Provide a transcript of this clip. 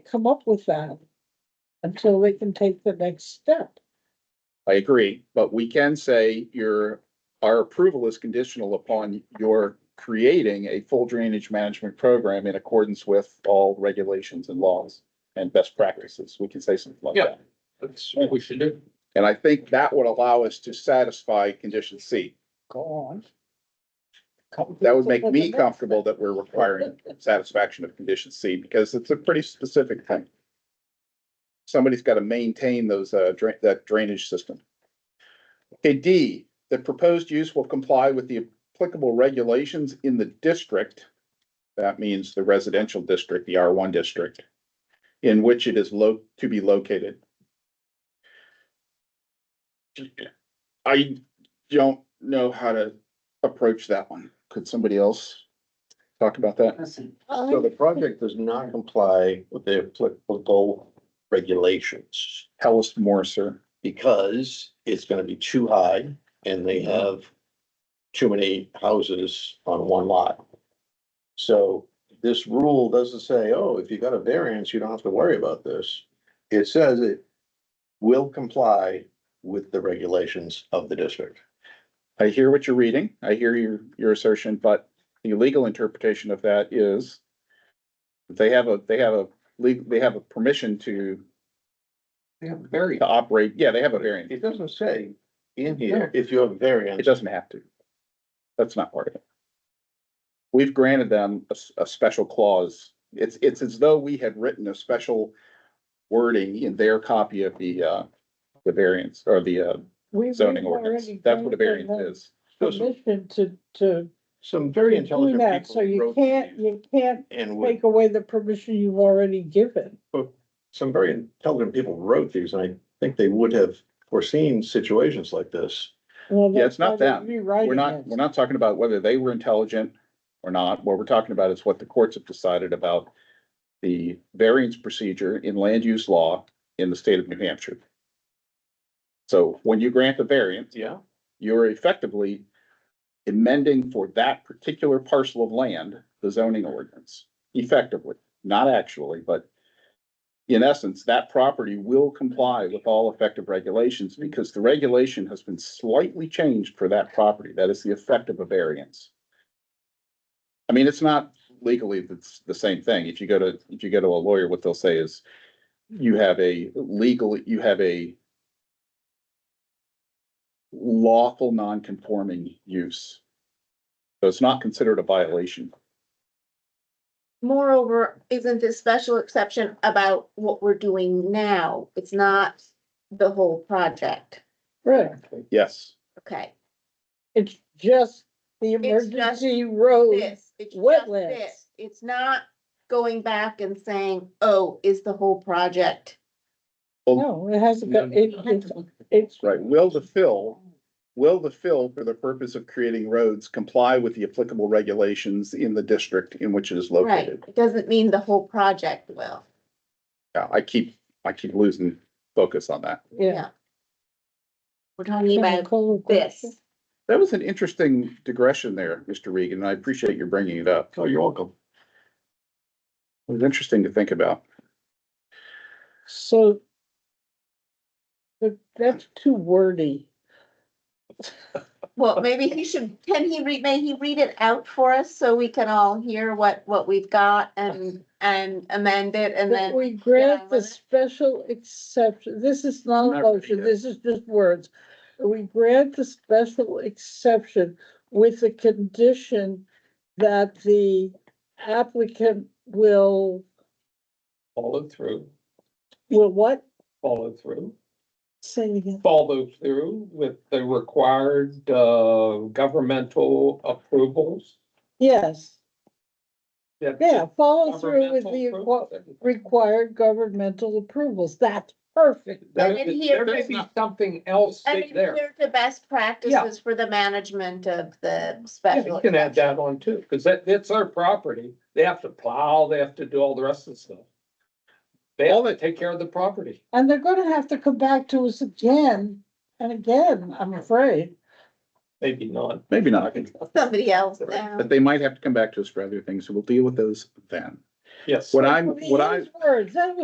come up with that until they can take the next step. I agree, but we can say your, our approval is conditional upon your creating a full drainage management program in accordance with all regulations and laws and best practices. We can say something like Yeah. that. That's what we should do. And I think that would allow us to satisfy condition C. Go on. That would make me comfortable that we're requiring satisfaction of condition C because it's a pretty specific thing. Somebody's got to maintain those, uh, drain, that drainage system. Okay, D, the proposed use will comply with the applicable regulations in the district. That means the residential district, the R one district, in which it is lo, to be located. I don't know how to approach that one. Could somebody else talk about that? So the project does not comply with the applicable regulations Tell us more, sir. because it's gonna be too high and they Mm-hmm. have too many houses on one lot. So this rule doesn't say, oh, if you got a variance, you don't have to worry about this. It says it will comply with the regulations of the district. I hear what you're reading. I hear your, your assertion, but the legal interpretation of that is that they have a, they have a, legal. they have a permission to, They have very. to operate. Yeah, they have a variance. It doesn't say in here, if you have a variance. It doesn't have to. That's not part of it. We've granted them a, s- a special clause. It's, it's as though we had written a special wording in their copy of the, uh, the variance or the uh, zoning ordinance. That's what a variance is. So some- Permission to, to Some very do intelligent that, people. so you wrote can't, these you can't And would take away the permission you've already given. some very intelligent people wrote these, and I think they would have foreseen situations like this. Well, Yeah, it's that's why not they're them. We're Rewriting not, it. we're not talking about whether they were intelligent or not. What we're talking about is what the courts have decided about the variance procedure in land use law in the state of New Hampshire. So when you grant the variance, Yeah. you're effectively amending for that particular parcel of land, the zoning ordinance, effectively, not actually, but in essence, that property will comply with all effective regulations because the regulation has been slightly changed for that property. That is the effect of a variance. I mean, it's not legally, it's the same thing. If you go to, if you go to a lawyer, what they'll say is you have a legal, you have a lawful non-conforming use. So it's not considered a violation. Moreover, isn't this special exception about what we're doing now? It's not the whole project, Right, Yes, okay? it's just the It's just emergency road. This, it's just Wetlands. this. It's not going back and saying, oh, is the whole project. No, it hasn't got, it, it's, it's Mm-hmm. right. Will the fill, will the fill for the purpose of creating roads comply with the applicable regulations in the district in which it is Right, located? it doesn't mean the whole project will. Yeah, I keep, I keep losing focus on that. Yeah. We're talking Can I about call a this. question? That was an interesting digression there, Mr. Regan, and I appreciate your bringing it up. Oh, you're welcome. It was interesting to think about. So. But that's too wordy. Well, maybe he should, can he read, may he read it out for us so we can all hear what, what we've got and, and amend it and That then. we grant Yeah, the I wanna- special exception, this is not a Not really, motion, yeah. this is just words. We grant the special exception with the condition that the applicant will, Follow through, will what? follow through, Say it again. follow through with the required, uh, governmental approvals. Yes, that the yeah, follow through with governmental the approvals- requ- required governmental approvals. That's perfect. There- I didn't hear There may from- be something else And in there. here the best practices for the management of the Yeah, special. You can add that on too, because that, it's their property. They have to plow, they have to do all the rest of the stuff. They all that take care of the property. And they're gonna have to come back to us again and again, I'm afraid. Maybe not. Maybe not, Somebody else now. but they might have to come back to us for other things, so we'll deal with those then. yes. What I'm, I mean, what I. his Words, that was